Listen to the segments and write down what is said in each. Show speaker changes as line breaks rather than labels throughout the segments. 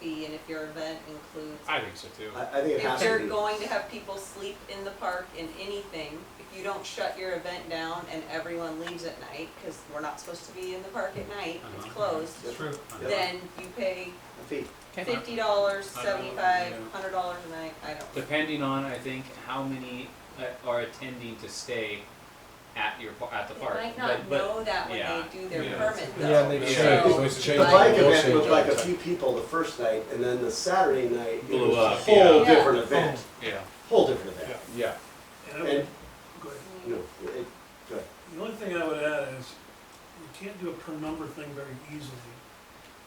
be, and if your event includes.
I think so too.
I, I think it
If
has to be.
they're going to have people sleep in the park in anything, if you don't shut your event down and everyone leaves at night, cause we're not supposed to be in the park at night, it's
Uh-huh.
closed,
Yep.
True.
Yep.
then you pay
A fee.
Okay.
fifty
Uh-huh.
dollars,
I don't know,
seventy-five,
yeah.
hundred dollars a night, I don't.
Depending on, I think, how many uh, are attending to stay at your, par- at the park.
They might not
But- but-
know that when
yeah,
they do their
yeah.
permit though.
Yeah, they
Yeah.
changed,
So-
they
The
changed.
bike
they'll
event
change
was
all
like
the
a
time.
few people the first night, and then the Saturday night, it
Blew
was a
up,
whole
yeah. Yeah.
different event,
Yeah.
whole different event.
Yeah,
And I
And,
would, go ahead.
Mm,
you know, it, go ahead.
the only thing I would add is, you can't do a per number thing very easily.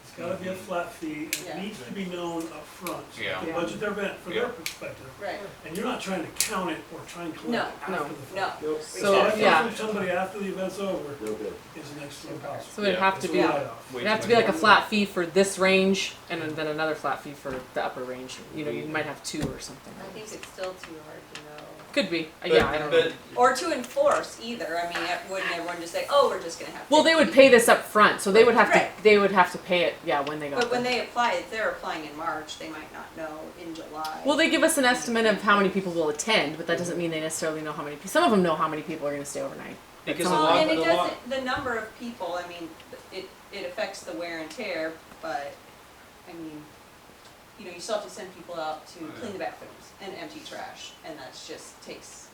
It's gotta be a flat fee, and
Yeah.
it needs to be known upfront. so
Mm-hmm. Yeah.
they Budget their event from their
Yeah.
perspective,
Right,
and you're not trying to count it or trying to
No,
collect it after the fact.
no,
Nope.
So,
If I
yeah.
come from somebody after the event's over,
No good.
it's next to impossible.
So it'd
Yeah.
have to
It's a
be, it'd
write-off.
Way
have
too
to be
many
like a
people.
flat fee for this range and then another flat fee for the upper range. You know, you might have two or something.
I think it's still too hard to know.
Could be, Uh,
But-
yeah, I don't know.
but-
Or to enforce either, I mean, wouldn't everyone just say, oh, we're just gonna have.
Well, they
50?
would pay this up front, so they would have to,
Right.
they would have to pay it, yeah, when they got
But when
there.
they apply, if they're applying in March, they might not know in July.
Well, they give us an estimate of how many people will attend, but that doesn't mean they necessarily know how many, some of them know how many people are gonna stay overnight.
Because a
Well,
Well,
lot,
Oh, and it
a lot,
doesn't, the number of people, I mean, it, it affects the wear and tear, but, I mean, you know, you still have to send people out to
Oh, Yeah.
clean the bathrooms and empty trash, and that's just takes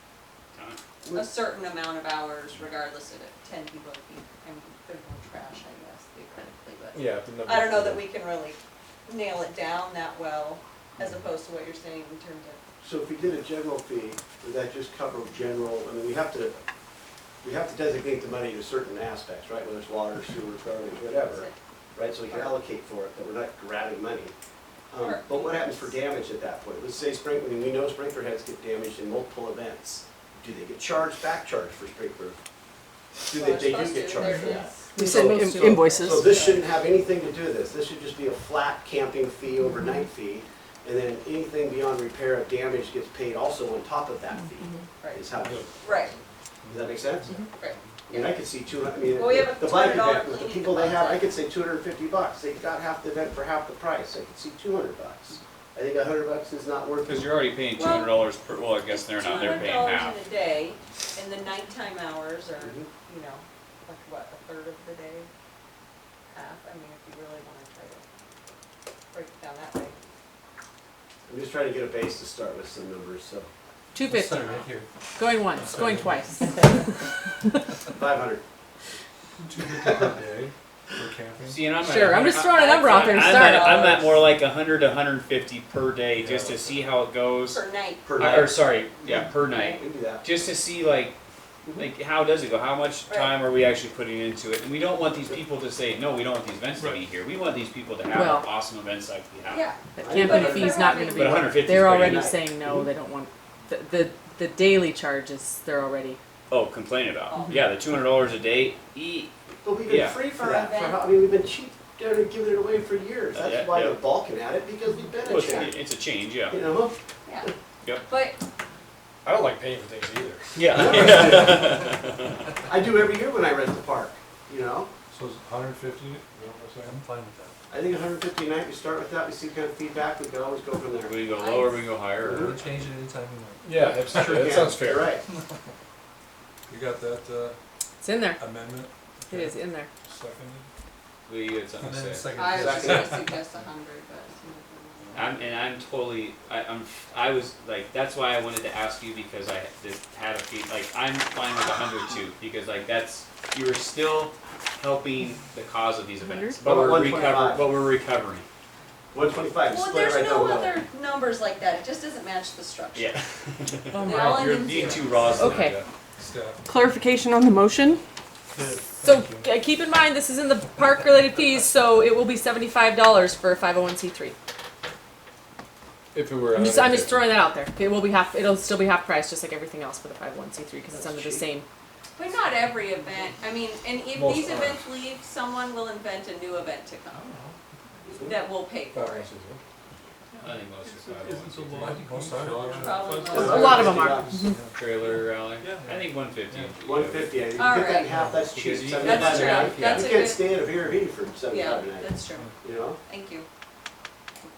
Time.
a certain amount of hours regardless of if ten people, if you, I mean, there's no trash, I guess, theoretically, but.
yeah. the number-
I don't know that we can really nail it down that well, as opposed to what you're saying in terms of,
So if we did a general fee, would that just cover general, I mean, we have to, we have to designate the money to certain aspects, right? Whether it's water, sewer, garbage, whatever, right? So we can allocate for it, that we're not grabbing money. Um, but what happens for damage at that point? Let's say sprinkler, we know sprinkler heads get damaged in multiple events. Do they get charged, back charged for sprinkler? Do
Well,
they,
they're
they do
supposed
get
to,
charged
they're-
for that?
yes.
We
So-
send in- invoices.
So this shouldn't have anything to do with this, this should just be a flat camping fee, overnight fee, and then anything beyond repair of damage gets paid also on top of that fee, is
right,
how, does
right,
that make sense?
right.
I mean, I could see two, I mean,
Well, we have a
the bike
$200
event, with the
cleaning
people they have, I
deposit.
could say two hundred and fifty bucks, they got half the event for half the price, I could see two hundred bucks. I think a hundred bucks is not worth
because
it.
you're already paying two hundred dollars per, well, I guess they're not, they're paying half.
$200 in a day, and the nighttime hours are,
Mhm.
you know, like what, a third of the day? Half, I mean, if you really wanna try to break it down that way.
I'm just trying to get a base to start with some numbers, so,
Two
Let's
fifty,
start right here.
going once, going twice.
five hundred.
Two fifty per day for camping.
See, and I'm at-
Sure, I'm just throwing a number out there to
I'm
start.
at- I'm at more like a hundred, a hundred and fifty per day, just to see how it goes.
Per night,
per
Uh, Or,
night.
sorry, yeah, per
We
night,
can do that.
just to see like, like, how does it go? How much
Right.
time are we actually putting into it? And we don't want these people to say, no, we don't want these events to be here. We want these people to have
Well-
awesome events like we have.
yeah,
That
But
camping
if
fee's
they're
not
having-
gonna be.
But a hundred fifty is
They're
pretty
already
nice.
saying no,
Mm-hmm.
they don't want, the, the, the daily charges, they're already,
Oh, complain about.
Mhm.
Yeah, the two hundred dollars a day, e, eat,
But we've been
Yeah.
free for
For
that, for
event.
how, I mean, we've been cheap, down and giving it away for years,
Uh, yeah,
that's why
yeah.
they're balking at it, because we've been
Well,
a
it's,
cheap,
it's a change, yeah.
you know?
yeah.
Yep.
But
I don't like paying for things either.
Yeah.
I do every year when I rent the park, you know?
So it's hundred and fifty, you know what I'm saying? I'm fine with that.
I think hundred fifty a night, we start with that, we see kind of feedback, we can always go from there.
We go lower, we go higher. or-
change it anytime you want.
Yeah, that's
Sure
true, that
can.
sounds
You're
fair.
Right.
You got that
it's in there,
uh, amendment
it is in there.
seconded?
We had something
And
to
then
say.
seconded.
I was just
Exactly.
gonna suggest a hundred, but. it's not gonna-
I'm, and I'm totally, I, I'm, I was like, that's why I wanted to ask you because I this had a fee, like, I'm fine with a hundred too, because like, that's, you are still helping the cause of these events. But
About
we're
125.
recovering, but we're recovering,
One twenty-five,
Well,
split it
there's
right down
no
the middle.
other numbers like that, it just doesn't match the structure.
yeah.
Oh
They all end
You're
in
being
zeros.
too raw. Zach.
Okay.
Staff.
Clarification on the motion? So uh, keep in mind, this is in the park-related fees, so it will be seventy-five dollars for a five oh one C three.
If it were.
I'm just, I'm
150.
just throwing that out there. It will be half, it'll still be half price, just like everything else for the five oh one C three, because it's
That's
under the
cheap.
same.
But not every event, I mean, and if
Most
these
aren't.
events leave, someone will invent a new event to come that will pay
Five
for it.
ounces, huh?
I think most of the time,
Isn't so
one
low.
Most of them are.
Probably
It's
most-
Uh, A lot of them are.
150.
fifty. Trailer alley, I think one fifty.
One fifty, I think, you
All
get that in
right.
half, that's cheap,
Because you-
seventy-five
That's
a night.
true, that's a
You can't
good,
stay at a Vera Vita for
yeah,
seventy-five a night,
that's true,
you know?
thank you.